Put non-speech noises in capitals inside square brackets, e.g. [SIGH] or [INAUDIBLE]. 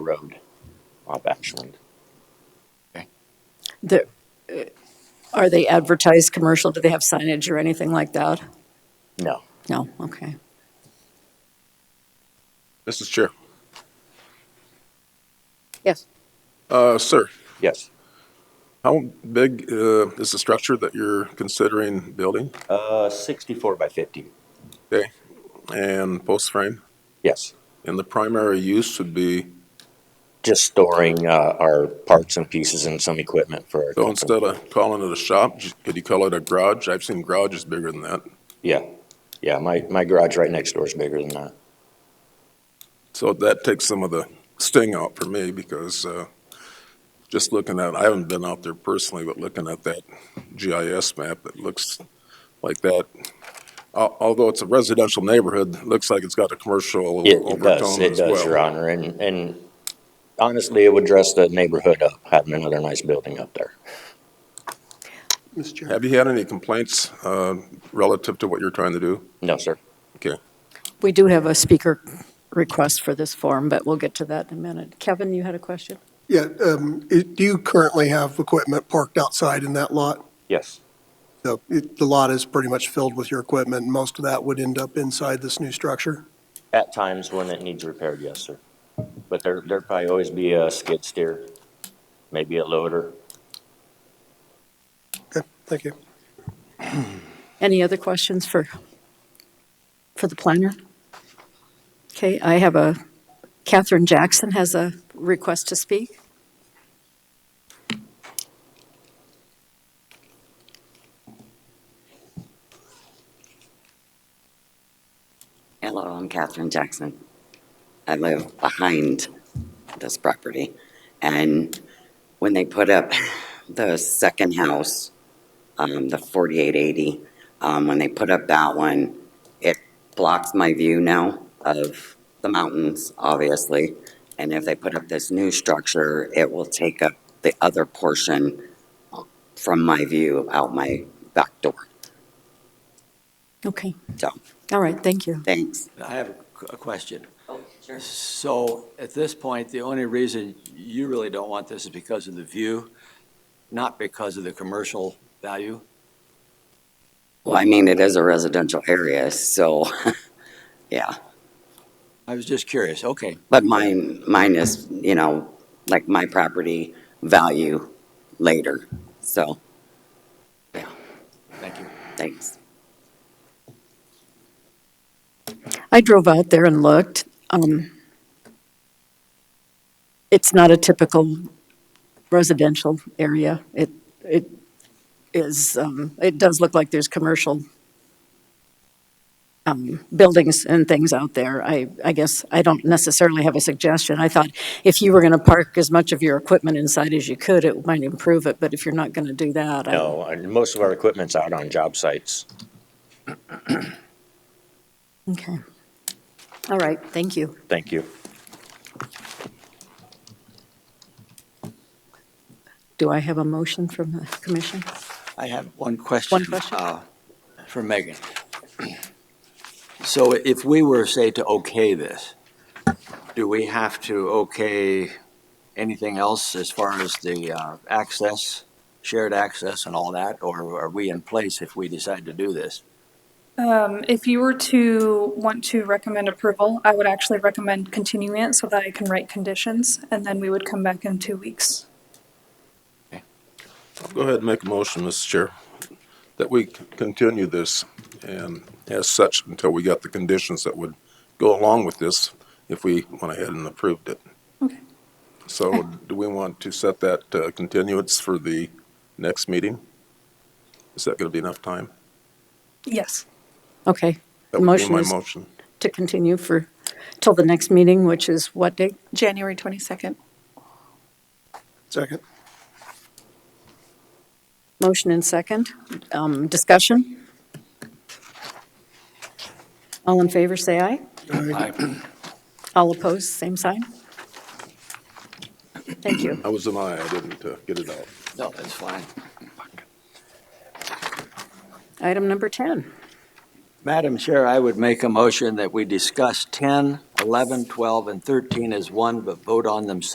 road up Ashland. Okay. The- uh, Are they advertised commercial? Do they have signage or anything like that? No. No, okay. Mr. Chair. Yes. Uh, sir, Yes. how big, uh, is the structure that you're considering building? Uh, 64 by 50. Okay, and post frame? Yes. And the primary use would be, Just storing uh, our parts and pieces and some equipment for our so company. instead of calling it a shop, j- could you call it a garage? I've seen garages bigger than that. Yeah. Yeah. My, my garage right next door is bigger than that. So that takes some of the sting out for me because, uh, just looking at, I haven't been out there personally, but looking at that GIS map, it looks like that. Al- Although it's a residential neighborhood, it looks like it's got a commercial It, it does. overtone It as does, Your well. Honor. And, and honestly, it would dress the neighborhood up, having another nice building up there. Mr. Chair. Have you had any complaints, uh, relative to what you're trying to do? No, sir. Okay. We do have a speaker request for this form, but we'll get to that in a minute. Kevin, you had a question? Yeah, um, it- do you currently have equipment parked outside in that lot? Yes. So it- the lot is pretty much filled with your equipment, and most of that would end up inside this new structure? At times when it needs repaired, yes, sir. But there, there'd probably always be a skid steer, maybe a loader. Okay, thank you. Any other questions for, for the planner? Okay, I have a, Catherine Jackson has a request to speak. Hello, I'm Catherine Jackson. I live behind this property. And when they put up the second house, um, the forty-eight eighty, um, when they put up that one, it blocks my view now of the mountains, obviously. And if they put up this new structure, it will take up the other portion from my view out my back door. Okay, So, all right, thank you. thanks. I have a qu- a question. Oh, sure. So at this point, the only reason you really don't want this is because of the view, not because of the commercial value? Well, I mean, it is a residential area, so, [LAUGHS] yeah. I was just curious. Okay, But mine, mine is, you know, like my property value later, so, thank you. thanks. I drove out there and looked. Um, It's not a typical residential area. It, it is, um, it does look like there's commercial um, buildings and things out there. I, I guess I don't necessarily have a suggestion. I thought if you were going to park as much of your equipment inside as you could, it might improve it, but if you're not going to do that, I- No, and most of our equipment's out on job sites. Okay. All right, thank you. Thank you. Do I have a motion from the commission? I have one question. One question? uh, For Megan. So if we were, say, to okay this, do we have to okay anything else as far as the uh, access, shared access and all that? Or are we in place if we decide to do this? Um, If you were to want to recommend approval, I would actually recommend continuing it so that I can write conditions, and then we would come back in two weeks. Go ahead and make a motion, Mr. Chair, that we c- continue this and as such until we got the conditions that would go along with this if we went ahead and approved it. Okay. So do we want to set that uh, continuance for the next meeting? Is that going to be enough time? Yes. Okay. That would be Motion my is- motion. to continue for, till the next meeting, which is what date? January 22nd. Second. Motion and second. Um, Discussion? All in favor, say aye. All opposed, same sign. Thank you. I was an aye, I didn't uh, get it out. No, that's fine. Item number 10. Madam Chair, I would make a motion that we discuss 10, 11, 12, and 13 as one, but vote on them